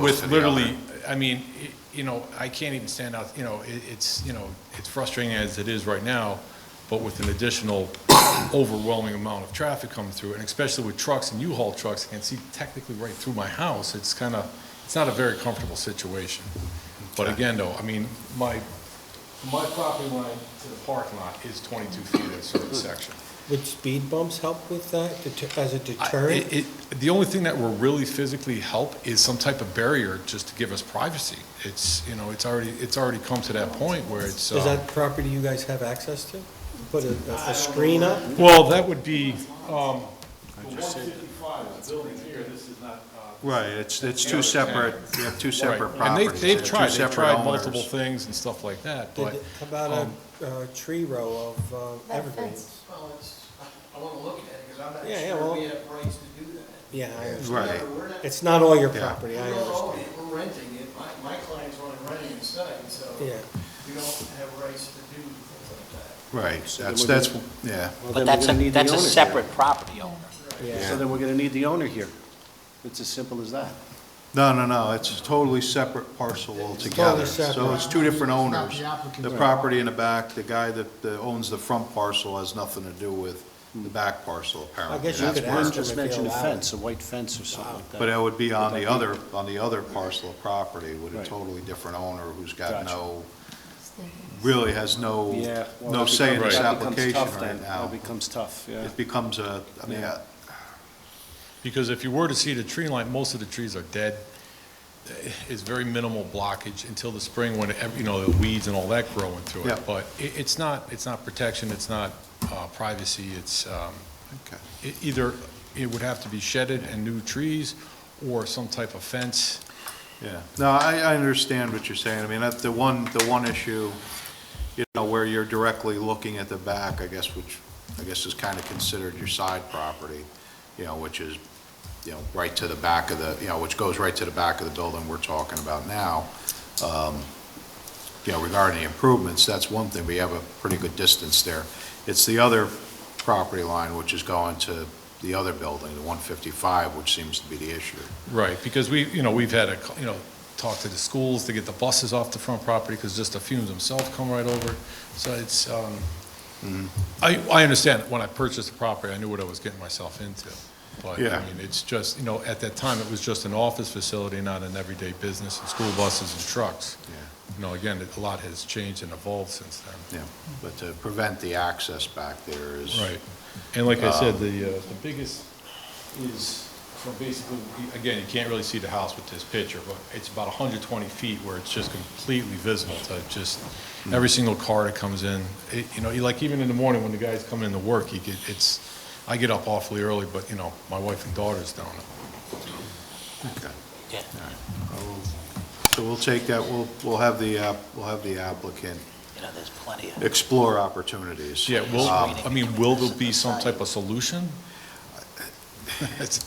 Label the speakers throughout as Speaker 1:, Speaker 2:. Speaker 1: With
Speaker 2: to the
Speaker 1: literally, I mean, y- you know, I can't even stand out, you know, it, it's, you know, it's frustrating as it is right now, but with an additional overwhelming amount of traffic coming through, and especially with trucks and U-Haul trucks, I can see technically right through my house, it's kind of, it's not a very comfortable situation. But again, though, I mean, my, from my property line to the parking lot is twenty-two feet in a certain section.
Speaker 3: Would speed bumps help with that deter- as a
Speaker 1: I-
Speaker 3: deterrent?
Speaker 1: it- it- The only thing that will really physically help is some type of barrier just to give us privacy. It's, you know, it's already, it's already come to that point where it's,
Speaker 3: Is
Speaker 1: uh,
Speaker 3: that property you guys have access to? Put a, a- a screen up?
Speaker 1: well, that would be, um,
Speaker 2: Right, it's, it's two separate, you have two
Speaker 1: right.
Speaker 2: separate
Speaker 1: And they,
Speaker 2: properties.
Speaker 1: they've
Speaker 2: two
Speaker 1: tried, they've
Speaker 2: separate
Speaker 1: tried
Speaker 2: owners.
Speaker 1: multiple things and stuff like that,
Speaker 3: Did-
Speaker 1: but,
Speaker 3: How about a, a uh, tree row of uh,
Speaker 4: That
Speaker 3: evergreens?
Speaker 4: fence.
Speaker 5: Well, it's, I want to look at it, because I'm not
Speaker 3: Yeah, yeah, well-
Speaker 5: sure we have rights to do that.
Speaker 3: Yeah, I understand.
Speaker 2: Right.
Speaker 5: We're not,
Speaker 3: It's not all your
Speaker 2: Yeah.
Speaker 3: property,
Speaker 5: we
Speaker 3: I
Speaker 5: don't
Speaker 3: understand.
Speaker 5: own it, we're renting it, my, my clients want to rent it inside, so we
Speaker 3: Yeah.
Speaker 5: don't have rights to do things like that.
Speaker 2: Right, that's, that's, yeah.
Speaker 6: But that's a, that's a separate property owner.
Speaker 3: Yeah.
Speaker 7: So then we're going to need the owner here. It's as simple as that.
Speaker 2: No, no, no, it's a totally separate parcel altogether.
Speaker 3: Totally separate.
Speaker 2: So it's two different owners.
Speaker 5: the applicant's
Speaker 2: The property in the back, the guy that that owns the front parcel has nothing to do with the back parcel, apparently.
Speaker 3: I guess you
Speaker 2: That's
Speaker 3: could
Speaker 2: where-
Speaker 3: ask them
Speaker 7: Just
Speaker 3: if they
Speaker 7: mention a
Speaker 3: allow it.
Speaker 7: fence, a white fence or something like that.
Speaker 2: But uh, it would be on the other, on the other parcel of property with a
Speaker 7: Right.
Speaker 2: totally different owner who's got
Speaker 7: Gotcha.
Speaker 2: no,
Speaker 4: Stinking.
Speaker 2: really has no,
Speaker 7: Yeah. well,
Speaker 2: no
Speaker 7: that
Speaker 2: say in
Speaker 7: becomes-
Speaker 2: this
Speaker 7: that becomes
Speaker 2: application
Speaker 7: tough
Speaker 2: right
Speaker 7: then.
Speaker 2: now.
Speaker 7: That becomes tough, yeah.
Speaker 2: It becomes a, I mean,
Speaker 7: Yeah.
Speaker 2: uh,
Speaker 1: because if you were to see the tree line, most of the trees are dead. It's very minimal blockage until the spring when, ev- you know, the weeds and all that growing through
Speaker 2: Yeah.
Speaker 1: it. But it, it's not, it's not protection, it's not uh, privacy, it's, um,
Speaker 2: okay.
Speaker 1: E- Either it would have to be shedded and new trees, or some type of fence.
Speaker 2: Yeah, no, I, I understand what you're saying. I mean, that's the one, the one issue, you know, where you're directly looking at the back, I guess, which, I guess is kind of considered your side property, you know, which is, you know, right to the back of the, you know, which goes right to the back of the building we're talking about now. Um, You know, regarding the improvements, that's one thing, we have a pretty good distance there. It's the other property line, which is going to the other building, the 155, which seems to be the issue.
Speaker 1: Right, because we, you know, we've had a, co- you know, talk to the schools to get the buses off the front property, because just the fumes themselves come right over. So it's, um,
Speaker 2: Mm-hmm.
Speaker 1: I, I understand, when I purchased the property, I knew what I was getting myself into. But,
Speaker 2: Yeah.
Speaker 1: I mean, it's just, you know, at that time, it was just an office facility, not an everyday business, and school buses and trucks.
Speaker 2: Yeah.
Speaker 1: You know, again, a lot has changed and evolved since then.
Speaker 2: Yeah, but to prevent the access back there is.
Speaker 1: Right. And like I
Speaker 2: Um,
Speaker 1: said, the, uh, the biggest is from basically, again, you can't really see the house with this picture, but it's about 120 feet where it's just completely visible to just
Speaker 2: Hmm.
Speaker 1: every single car that comes in. It- You know, you- like even in the morning when the guys come into work, you get, it's, I get up awfully early, but you know, my wife and daughters don't.
Speaker 2: Okay.
Speaker 6: Yeah.
Speaker 2: All right. I'll- So we'll take that, we'll, we'll have the, app- we'll have the applicant
Speaker 6: You know, there's plenty of.
Speaker 2: explore opportunities.
Speaker 1: Yeah, will,
Speaker 2: Um,
Speaker 1: I mean, will there be some type of solution? It's-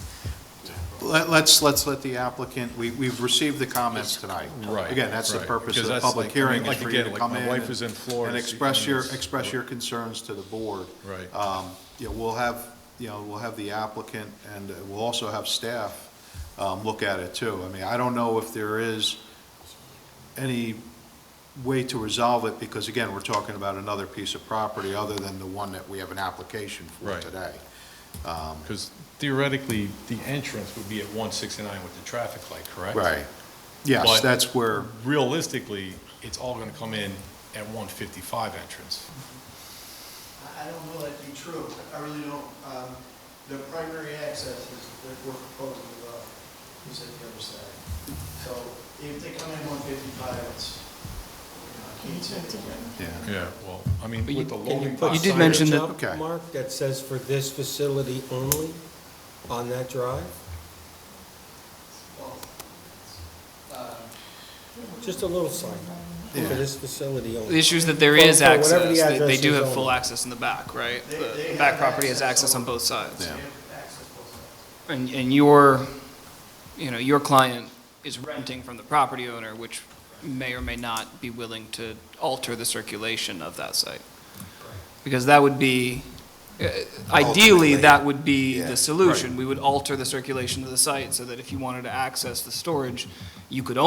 Speaker 2: Let, let's, let's let the applicant, we, we've received the comments tonight.
Speaker 1: Right,
Speaker 2: Again, that's the
Speaker 1: right.
Speaker 2: purpose of
Speaker 1: Because
Speaker 2: the
Speaker 1: that's
Speaker 2: public
Speaker 1: like- I mean,
Speaker 2: hearing, is
Speaker 1: like
Speaker 2: for you
Speaker 1: again,
Speaker 2: to
Speaker 1: like
Speaker 2: come
Speaker 1: my
Speaker 2: in.
Speaker 1: wife
Speaker 2: and-
Speaker 1: is in Florida,
Speaker 2: And
Speaker 1: she
Speaker 2: express your,
Speaker 1: comes-
Speaker 2: express your concerns to the board.
Speaker 1: Right.
Speaker 2: Um, you know, we'll have, you know, we'll have the applicant, and uh, we'll also have staff, um, look at it too. I mean, I don't know if there is any way to resolve it, because again, we're talking about another piece of property other than the one that we have an application for
Speaker 1: Right.
Speaker 2: today.
Speaker 1: Because theoretically, the entrance would be at 169 with the traffic light, correct?
Speaker 2: Right. Yes,
Speaker 1: But-
Speaker 2: that's where,
Speaker 1: Realistically, it's all going to come in at 155 entrance.
Speaker 5: I- I don't know that to be true, I really don't. Um, The primary access is, that we're proposing, uh, is at the other side. So if they come in one fifty-five, it's, you know, I can't say they can.
Speaker 2: yeah.
Speaker 1: Yeah, well, I mean,
Speaker 3: But you-
Speaker 1: with the
Speaker 3: can
Speaker 1: loading.
Speaker 3: put
Speaker 1: dock
Speaker 8: You did
Speaker 1: sign-
Speaker 3: signage
Speaker 8: mention that-
Speaker 3: up,
Speaker 2: Okay.
Speaker 3: Mark, that says for this facility only on that drive?
Speaker 5: Well, uh,
Speaker 3: Just a little sign for
Speaker 2: Yeah.
Speaker 3: this facility
Speaker 8: The
Speaker 3: only.
Speaker 8: issue is that there
Speaker 3: For-
Speaker 8: is
Speaker 3: for whatever the
Speaker 8: access, they- they
Speaker 3: address
Speaker 8: do
Speaker 3: is
Speaker 8: have
Speaker 3: on
Speaker 8: full
Speaker 3: it.
Speaker 8: access in the back, right?
Speaker 5: They-
Speaker 8: The
Speaker 5: they
Speaker 8: the back
Speaker 5: have
Speaker 8: property has
Speaker 5: access
Speaker 8: access on
Speaker 5: over-
Speaker 8: both sides.
Speaker 5: they
Speaker 2: Yeah.
Speaker 5: have access both sides.
Speaker 8: And, and your, you know, your client is renting from the property owner, which may or may not be willing to alter the circulation of that site. Because that would be, uh, Ideally,
Speaker 4: Ultimately,
Speaker 8: that would be
Speaker 4: yeah,
Speaker 8: the solution. We would alter the circulation of the site so that if you wanted to access the storage, you could